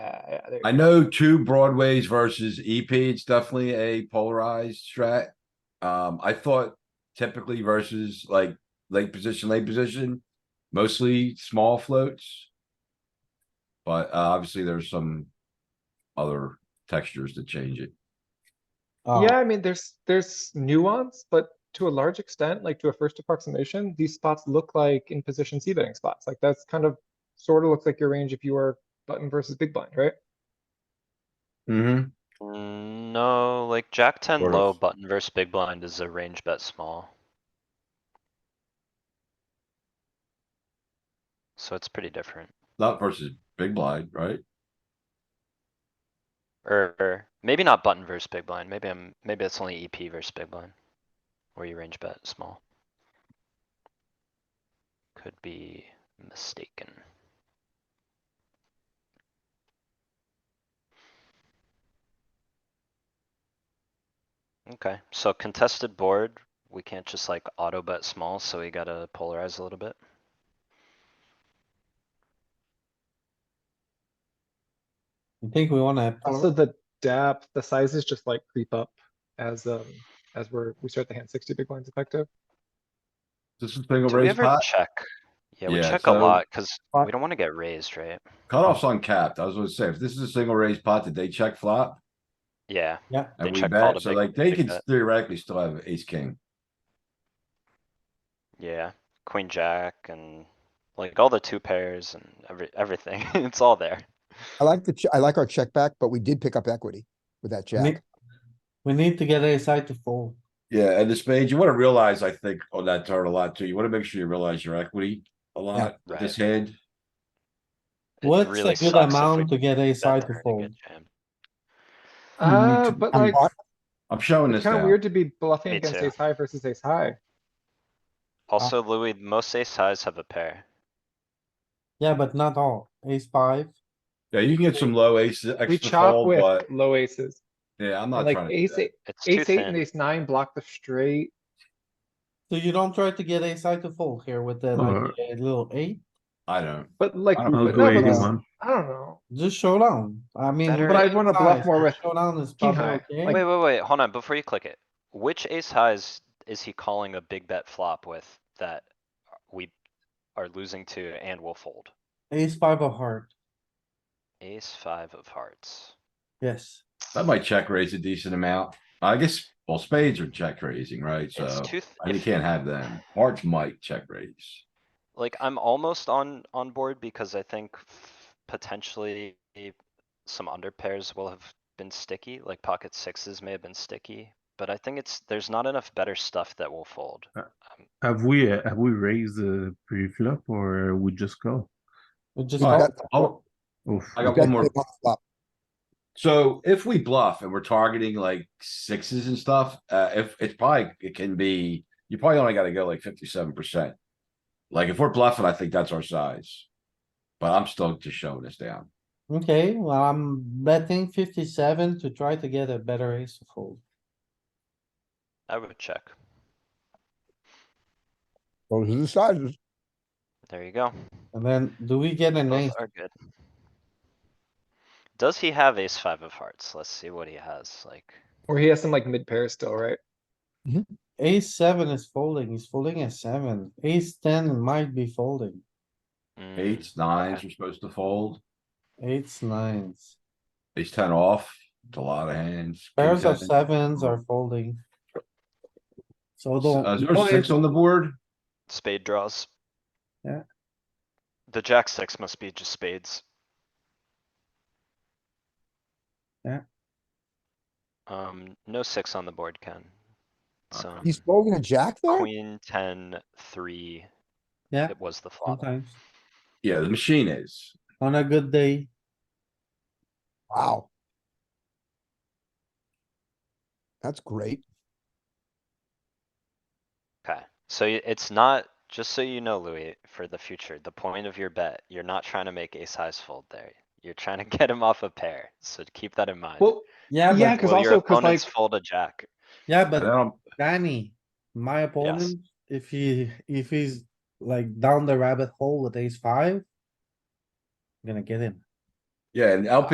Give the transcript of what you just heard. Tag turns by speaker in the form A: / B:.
A: Uh,
B: yeah, there you
C: I
B: go.
C: know two broadways versus EP, it's definitely a polarized strat. Um, I thought typically versus like late position, late position, mostly small floats. But uh, obviously there's some other textures to change it.
D: Oh,
B: Yeah, I mean, there's, there's nuance, but to a large extent, like to a first approximation, these spots look like in position c betting spots. Like that's kind of sort of looks like your range if you are button versus big blind, right?
C: Mm-hmm.
A: Mm, No, like jack ten
C: Sort
A: low
C: of.
A: button versus big blind is a range bet small. So it's pretty different,
C: Not versus big blind, right?
A: Or- or maybe not button versus big blind, maybe I'm, maybe it's only EP versus big blind. Where you range bet small. Could be mistaken. Okay, so contested board, we can't just like auto bet small, so we gotta polarize a little bit.
D: you think we wanna,
A: Uh-huh.
B: Also, the dap, the sizes just like creep up as, um, as we're, we start the hand sixty big blinds effective.
C: This is single
A: Do we
C: raise
A: ever
C: pot,
A: check? Yeah, we
C: Yeah,
A: check a
C: so-
A: lot, cause
B: Uh,
A: we don't wanna get raised, right?
C: cutoff's uncapped, I was gonna say, if this is a single raise pot, did they check flop?
A: Yeah,
D: yeah,
A: They
C: And we
A: check called a
C: bet, so
A: big-
C: like they
A: big
C: could
A: bet.
C: theoretically still have ace, king.
A: yeah, queen, jack and like all the two pairs and every, everything, it's all there.
E: I like the, ch- I like our check back, but we did pick up equity with that
D: Nick-
E: jack.
D: we need to get a side to fold.
C: Yeah, and the spades, you wanna realize, I think, on that turn a lot too, you wanna make sure you realize your equity a lot, with this hand.
A: It
D: What's
A: really
D: a good
A: sucks if we
D: amount to get a
A: bet
D: side
A: there
D: to
A: and
D: fold?
A: get jammed.
B: Uh,
D: to-
B: but
E: I'm
B: like,
E: not-
C: I'm showing this
B: it's kind of
C: now,
B: weird to be bluffing
A: Me
B: against
A: too.
B: ace high versus ace high. Uh,
A: Also, Louis, most ace highs have a pair.
D: Yeah, but not all. Ace five,
C: yeah, you can get some low aces,
B: We
C: extra
B: chop
C: fold,
B: with
C: but,
B: low aces.
C: yeah, I'm
B: and,
C: not
B: Like
C: trying to. do
B: ace,
C: that.
B: eight,
A: It's too
B: ace eight and
A: thin.
B: ace nine block the straight.
D: so you don't try to get a side to fold here with the, like, a little eight,
C: I don't,
B: But like,
C: I
B: but
C: don't
B: no,
C: know.
B: but
E: eighty
B: this-
E: one.
B: I don't know.
D: just showdown. I mean.
A: Better
D: with
A: But
B: I'd wanna
D: ace
B: bluff
D: high,
B: more
D: so
B: with
D: Showdown is
B: king
D: probably
B: high,
D: okay.
B: like-
A: Wait, wait, wait, hold on, before you click it, which ace highs is he calling a big bet flop with that we are losing to and will fold?
D: Ace five of heart,
A: Ace five of hearts.
D: yes.
C: that might check raise a decent amount, I guess, well, spades are check raising, right, so,
A: It's too, th-
C: and you
A: if-
C: can't have them, hearts might check raise.
A: like, I'm almost on, on board because I think f- potentially some under pairs will have been sticky, like pocket sixes may have been sticky. But I think it's, there's not enough better stuff that will fold.
F: Uh,
A: Um,
F: Have we uh, have we raised the pre-flop or uh, we just call?
D: We just
C: Alright,
D: call.
C: oh,
F: Oof.
C: I
E: we
C: got
E: got
C: one more,
E: big on the flop.
C: so if we bluff and we're targeting like sixes and stuff, uh, if, it's probably, it can be, you probably only gotta go like fifty-seven percent. Like, if we're bluffing, I think that's our size. But I'm still just showing this down.
D: Okay, well, I'm betting fifty-seven to try to get a better ace to fold.
A: I would check.
E: Those are the sizes.
A: There you go.
D: And then do we get an ace?
A: Both are good. Does he have ace five of hearts? Let's see what he has, like,
B: Or he has some like mid pairs still, right?
D: Ace seven is folding, he's folding a seven, ace ten might be folding,
A: mm,
C: Eights, nines are supposed to fold.
D: eights, nines.
C: Ace ten off. It's a lot of hands. King
D: Pairs of
C: seven.
D: sevens are folding. So
C: Uh,
D: don't,
C: Is there a six on the board?
A: spade draws.
D: Yeah.
A: The jack six must be just spades.
D: Yeah.
A: Um, no six on the board, Ken.
B: Uh,
A: So
E: He's folding a jack there?
A: queen, ten, three,
D: yeah,
A: it was the flop.
D: sometimes,
C: Yeah, the machine is.
D: on a good day,
E: Wow. That's great.
A: Okay, so y- it's not, just so you know, Louis, for the future, the point of your bet, you're not trying to make ace highs fold there. You're trying to get him off a pair, so keep that in mind.
B: Well,
D: yeah,
B: Yeah,
D: but,
B: 'cause
A: Will your
B: also- 'cause,
A: opponents
B: like-
A: Fold a jack.
D: yeah,
C: And
D: but
C: I don't-
D: Danny, my opponent, if he, if he's like down the rabbit hole with ace five. I'm Gonna get him.
C: Yeah, and LP